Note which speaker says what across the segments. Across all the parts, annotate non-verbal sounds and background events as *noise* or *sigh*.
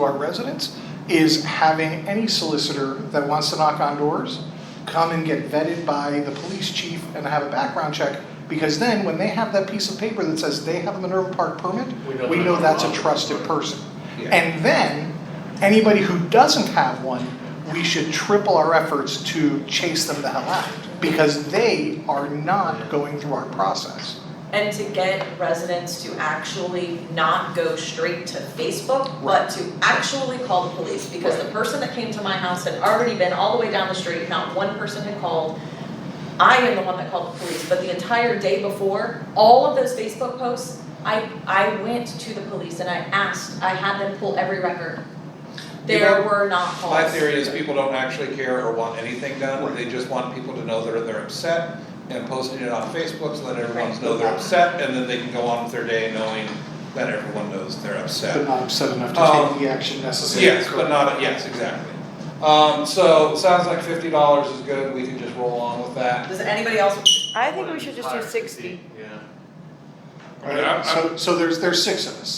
Speaker 1: to our residents is having any solicitor that wants to knock on doors come and get vetted by the police chief and have a background check, because then when they have that piece of paper that says they have a Minerva Park permit,
Speaker 2: We know
Speaker 1: we
Speaker 2: that's
Speaker 1: know that's a
Speaker 2: wrong.
Speaker 1: trusted person.
Speaker 3: Yeah.
Speaker 1: And then, anybody who doesn't have one, we should triple our efforts to chase them the hell out, because they are not going through our process.
Speaker 4: And to get residents to actually not go straight to Facebook, but to actually call the police, because the person that came to my house had already been all the way down the street, not one person had called. I am the one that called the police, but the entire day before, all of those Facebook posts, I I went to the police and I asked, I had them pull every record. There
Speaker 3: Yeah.
Speaker 4: were not calls.
Speaker 3: My theory is people don't actually care or want anything done,
Speaker 1: Right.
Speaker 3: they just want people to know they're, they're upset and posting it on Facebook so that everyone
Speaker 4: Right.
Speaker 3: knows they're upset and then they can go on with their day knowing that everyone knows they're upset.
Speaker 1: But not upset enough to
Speaker 3: Um,
Speaker 1: take the action necessary.
Speaker 3: Yes, but not, yes, exactly. Um, so, sounds like fifty dollars is good, we can just roll on with that.
Speaker 4: Does anybody else,
Speaker 5: I think we should just do sixty.
Speaker 2: Yeah. I mean,
Speaker 1: Alright,
Speaker 2: I'm- I'm-
Speaker 1: so, so there's, there's six of us.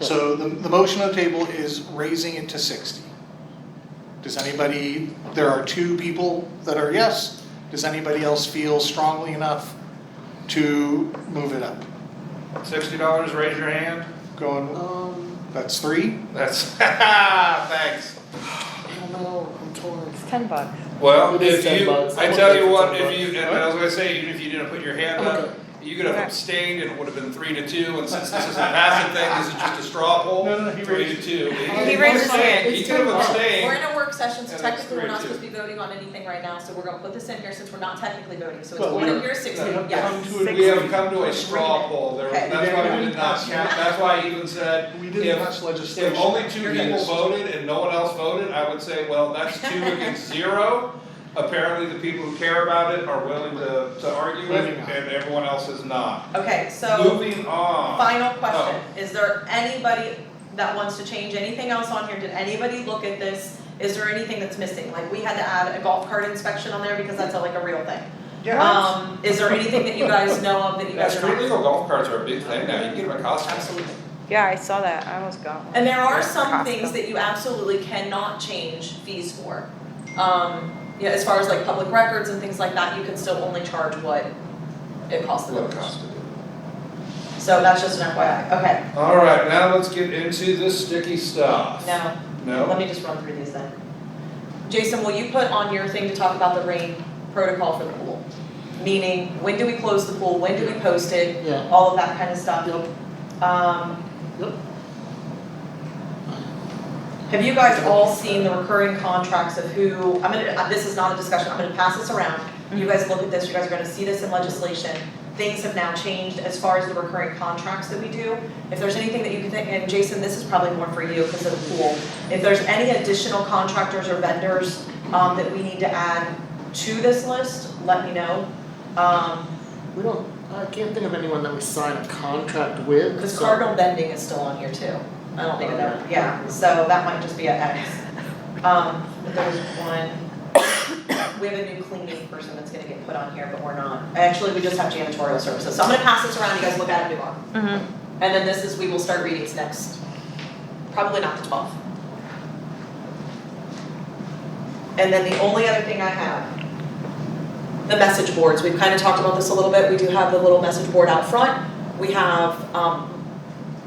Speaker 1: So the, the motion on the table is raising it to sixty. Does anybody, there are two people that are yes, does anybody else feel strongly enough to move it up?
Speaker 3: Sixty dollars, raise your hand.
Speaker 1: Going,
Speaker 2: Um,
Speaker 1: that's three,
Speaker 3: That's, *laughs* thanks.
Speaker 2: I don't know, I'm torn.
Speaker 5: It's ten bucks.
Speaker 3: Well,
Speaker 2: It is
Speaker 3: if
Speaker 2: ten
Speaker 3: you,
Speaker 2: bucks.
Speaker 3: I
Speaker 2: I'm
Speaker 3: tell
Speaker 2: okay
Speaker 3: you
Speaker 2: for
Speaker 3: what,
Speaker 2: ten
Speaker 3: if you,
Speaker 2: bucks.
Speaker 3: and I was gonna say, even if you didn't put your hand
Speaker 2: I'm
Speaker 3: up,
Speaker 2: okay.
Speaker 3: you could have
Speaker 5: Okay.
Speaker 3: abstained and it would have been three to two, and since this is a passive thing, this is just a straw poll,
Speaker 1: No, no, he
Speaker 3: three to
Speaker 1: raised-
Speaker 3: two.
Speaker 5: He raised his hand.
Speaker 3: He could have
Speaker 4: we're
Speaker 3: abstained,
Speaker 4: in a work session, so
Speaker 3: And it's
Speaker 4: technically we're
Speaker 3: three,
Speaker 4: not
Speaker 3: two.
Speaker 4: supposed to be voting on anything right now, so we're gonna put this in here since we're not technically voting, so it's
Speaker 1: Well,
Speaker 4: one
Speaker 1: we-
Speaker 4: of your six,
Speaker 3: we have
Speaker 4: yes.
Speaker 3: we have come to a straw poll, there,
Speaker 4: Okay.
Speaker 3: that's why we did not count, that's why I even said,
Speaker 1: we
Speaker 3: If-
Speaker 1: didn't touch legislation.
Speaker 3: If only two
Speaker 1: Yes.
Speaker 3: people voted and no one else voted, I would say, well, that's two against zero. Apparently, the people who care about it are willing to, to argue it,
Speaker 1: Moving on.
Speaker 3: and everyone else is not.
Speaker 4: Okay, so
Speaker 3: Moving on.
Speaker 4: final question, is there anybody that wants to change anything else on here? Did anybody look at this? Is there anything that's missing? Like, we had to add a golf cart inspection on there because that's a, like a real thing. Um, is there anything that you guys know of that you
Speaker 3: Yeah,
Speaker 4: guys are
Speaker 3: street
Speaker 4: not?
Speaker 3: legal golf carts are a big thing now, you can get them at Costco.
Speaker 4: Absolutely.
Speaker 5: Yeah, I saw that. I almost got one.
Speaker 4: And there are
Speaker 5: Yeah,
Speaker 4: some
Speaker 5: Costco.
Speaker 4: things that you absolutely cannot change fees for. Um, you know, as far as like public records and things like that, you can still only charge what it costs the
Speaker 3: What
Speaker 4: voters.
Speaker 3: Costco
Speaker 4: So that's just an FYI, okay,
Speaker 3: do. All right, now let's get into this sticky stuff.
Speaker 4: now Let
Speaker 3: No?
Speaker 4: me just run through these then. Jason, will you put on your thing to talk about the rain protocol for the pool? Meaning, when do we close the pool, when do we post it,
Speaker 2: Yeah.
Speaker 4: all of that kind of stuff? Um.
Speaker 2: Yep.
Speaker 4: Have you guys all seen the recurring contracts of who, I'm gonna, uh, this is not a discussion, I'm gonna pass this around. You guys look at this, you guys are gonna see this in legislation. Things have now changed as far as the recurring contracts that we do. If there's anything that you can think, and Jason, this is probably more for you because of the pool. If there's any additional contractors or vendors um that we need to add to this list, let me know. Um,
Speaker 2: We don't, I can't think of anyone that we sign a contract with,
Speaker 4: Because
Speaker 2: so-
Speaker 4: cardinal bending is still on here too. I don't think it ever, yeah, so that might just be an X. Um, there's one, we have a new cleaning person that's gonna get put on here, but we're not. Actually, we just have janitorial services, so I'm gonna pass this around, you guys look at it, move on.
Speaker 5: Mhm.
Speaker 4: And then this is, we will start readings next, probably not the twelfth. And then the only other thing I have, the message boards, we've kind of talked about this a little bit, we do have the little message board out front. We have, um,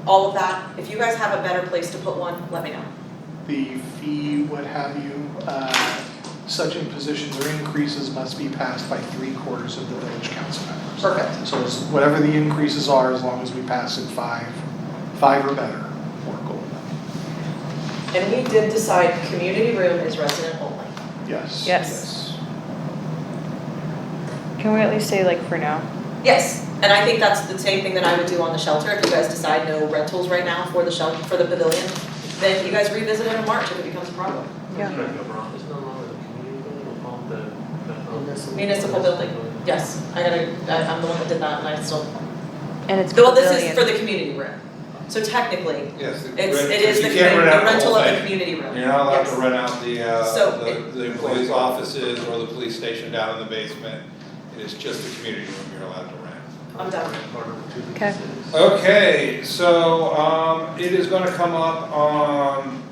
Speaker 4: all of that, if you guys have a better place to put one, let me know.
Speaker 1: the fee, what have you, uh, such impositions or increases must be passed by three quarters of the village council members.
Speaker 4: Perfect.
Speaker 1: So it's whatever the increases are, as long as we pass it five, five or better, we're cool.
Speaker 4: And we did decide community room is resident only.
Speaker 1: Yes.
Speaker 5: Yes. Can we at least say like for now?
Speaker 4: Yes, and I think that's the same thing that I would do on the shelter, if you guys decide no rentals right now for the shelter, for the pavilion, then you guys revisit it in March if it becomes a problem.
Speaker 5: Yeah.
Speaker 6: There's no longer a community building, we'll call it the- the-
Speaker 4: Municipal building, yes, I gotta, I, I'm the one that did that and I still,
Speaker 5: And it's
Speaker 4: well, this is
Speaker 5: pavilion.
Speaker 4: for the community room. So technically,
Speaker 3: Yes. the
Speaker 4: it's,
Speaker 3: rent-
Speaker 4: it is the
Speaker 3: you can't
Speaker 4: community, the
Speaker 3: rent out the
Speaker 4: rental
Speaker 3: whole
Speaker 4: of the
Speaker 3: thing.
Speaker 4: community room, yes.
Speaker 3: You're not allowed to rent out the,
Speaker 4: So
Speaker 3: uh, the,
Speaker 4: it-
Speaker 3: the employees' offices or the police station down in the basement. It is just the community room you're allowed to rent.
Speaker 4: I'm done.
Speaker 5: Okay.
Speaker 3: Okay, so, um, it is gonna come up on